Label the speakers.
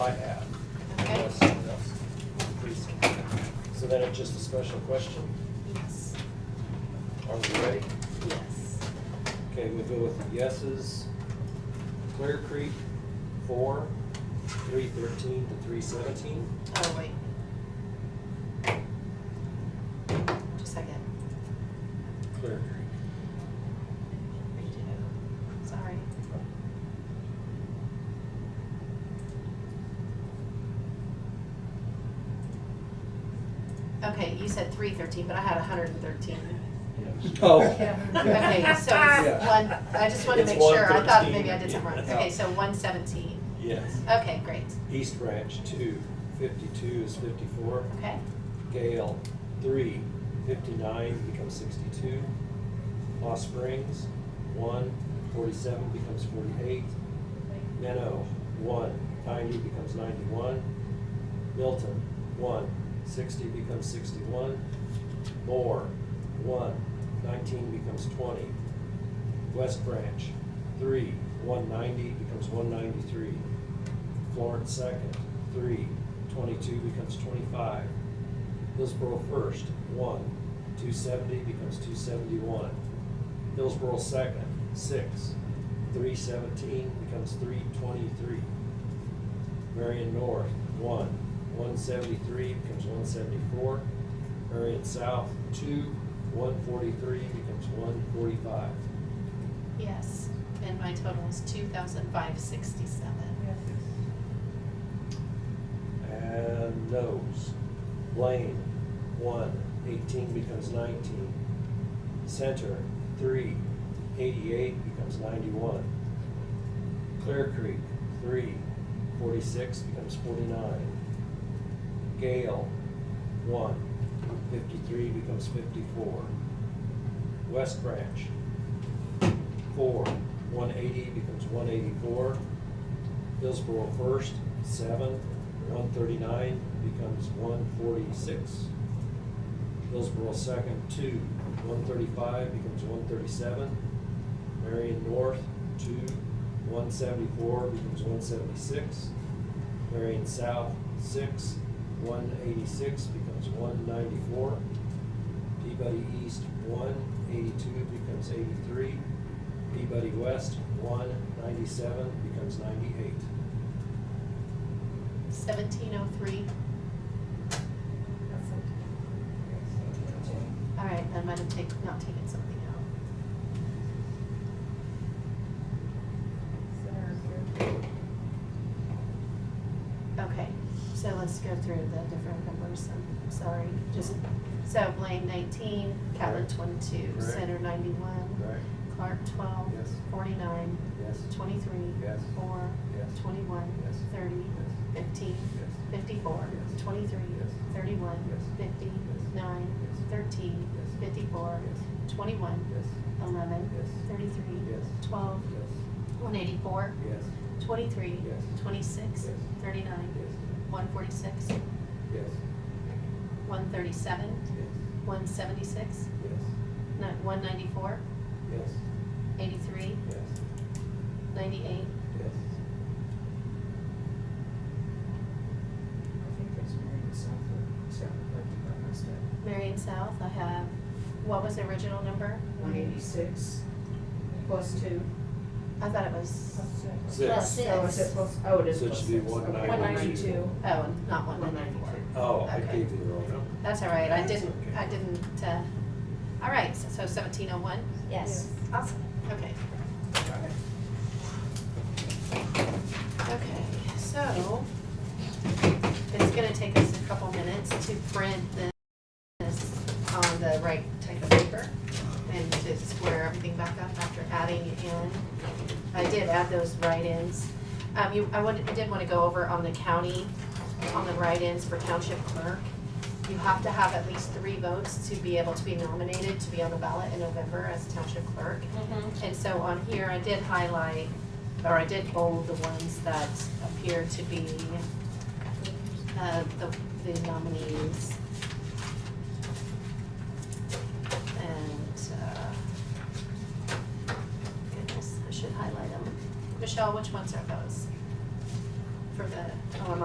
Speaker 1: I have.
Speaker 2: Okay.
Speaker 1: Unless someone else completes it. So then it's just a special question.
Speaker 2: Yes.
Speaker 1: Are we ready?
Speaker 2: Yes.
Speaker 1: Okay, we'll go with the yeses. Clear Creek, four, three thirteen to three seventeen.
Speaker 2: Oh, wait. Just a second.
Speaker 1: Clear Creek.
Speaker 2: Redo. Sorry. Okay, you said three thirteen, but I had hundred and thirteen.
Speaker 1: Oh.
Speaker 2: Okay, so it's
Speaker 1: Yeah.
Speaker 2: one, I just wanted to
Speaker 1: It's
Speaker 2: make sure. I thought
Speaker 1: 113.
Speaker 2: maybe I did something wrong.
Speaker 1: Yeah.
Speaker 2: Okay, so one seventeen.
Speaker 1: Yes.
Speaker 2: Okay, great.
Speaker 1: East Ranch, two, fifty-two is fifty-four.
Speaker 2: Okay,
Speaker 1: Gale, three, fifty-nine becomes sixty-two. Lost Springs, one, forty-seven becomes forty-eight. Nano, one, ninety becomes ninety-one. Milton, one, sixty becomes sixty-one. Moore, one, nineteen becomes twenty. West Branch, three, one ninety becomes one ninety-three. Florence second, three, twenty-two becomes twenty-five. Hillsborough first, one, two seventy becomes two seventy-one. Hillsborough second, six, three seventeen becomes three twenty-three. Marion North, one, one seventy-three becomes one seventy-four. Marion South, two, one forty-three becomes one forty-five.
Speaker 2: yes. And my total is two thousand five sixty-seven.
Speaker 1: And those. Blaine, one, eighteen becomes nineteen. Center, three, eighty-eight becomes ninety-one. Clear Creek, three, forty-six becomes forty-nine. Gale, one, fifty-three becomes fifty-four. West Branch, four, one eighty becomes one eighty-four. Hillsborough first, seven, one thirty-nine becomes one forty-six. Hillsborough second, two, one thirty-five becomes one thirty-seven. Marion North, two, one seventy-four becomes one seventy-six. Marion South, six, one eighty-six becomes one ninety-four. Peabody East, one, eighty-two becomes eighty-three. Peabody West, one, ninety-seven becomes ninety-eight.
Speaker 2: Seventeen oh three. All right, I might have taken, not taken something out. Okay, so let's go through the different numbers, I'm sorry, just, so Blaine nineteen, Catlin
Speaker 1: Correct.
Speaker 2: twenty-two,
Speaker 1: Correct.
Speaker 2: Center ninety-one,
Speaker 1: Right.
Speaker 2: Clark twelve,
Speaker 1: Yes.
Speaker 2: forty-nine,
Speaker 1: Yes.
Speaker 2: twenty-three,
Speaker 1: Yes.
Speaker 2: four,
Speaker 1: Yes.
Speaker 2: twenty-one,
Speaker 1: Yes.
Speaker 2: thirty, fifteen,
Speaker 1: Yes.
Speaker 2: fifty-four,
Speaker 1: Yes.
Speaker 2: twenty-three,
Speaker 1: Yes.
Speaker 2: thirty-one,
Speaker 1: Yes.
Speaker 2: fifty,
Speaker 1: Yes.
Speaker 2: nine,
Speaker 1: Yes.
Speaker 2: thirteen,
Speaker 1: Yes.
Speaker 2: fifty-four, twenty-one,
Speaker 1: Yes.
Speaker 2: eleven,
Speaker 1: Yes.
Speaker 2: thirty-three,
Speaker 1: Yes.
Speaker 2: twelve,
Speaker 1: Yes.
Speaker 2: one eighty-four,
Speaker 1: Yes.
Speaker 2: twenty-three,
Speaker 1: Yes.
Speaker 2: twenty-six,
Speaker 1: Yes.
Speaker 2: thirty-nine, one forty-six,
Speaker 1: Yes.
Speaker 2: one thirty-seven, one seventy-six,
Speaker 1: Yes.
Speaker 2: one ninety-four,
Speaker 1: Yes.
Speaker 2: eighty-three,
Speaker 1: Yes.
Speaker 2: ninety-eight,
Speaker 1: Yes.
Speaker 3: I think there's Marion South, South Park, that must have.
Speaker 2: Marion South, I have, what was the original number?
Speaker 3: One eighty-six plus two.
Speaker 2: I thought it was,
Speaker 1: Six. Plus
Speaker 3: Oh, is it plus, oh, it is
Speaker 1: So it
Speaker 3: plus
Speaker 1: should be
Speaker 3: six. Okay.
Speaker 1: 192.
Speaker 2: oh, not one ninety-four.
Speaker 1: Oh, I
Speaker 2: Okay.
Speaker 1: gave you the wrong number.
Speaker 2: That's all right, I
Speaker 1: That's
Speaker 2: didn't,
Speaker 1: okay.
Speaker 2: I didn't, uh, all right, so seventeen oh one?
Speaker 4: Yes.
Speaker 2: Awesome. Okay. Okay, so it's gonna take us a couple minutes to print this on the right type of paper and to square everything back up after adding in. I did add those write-ins. Um, you, I wanted, I did wanna go over on the county, on the write-ins for township clerk. You have to have at least three votes to be able to be nominated to be on the ballot in November as township clerk. And so on here, I did highlight, or I did bold the ones that appear to be uh, the the nominees. And, uh, goodness, I should highlight them. Michelle, which ones are those? For the, oh, I'm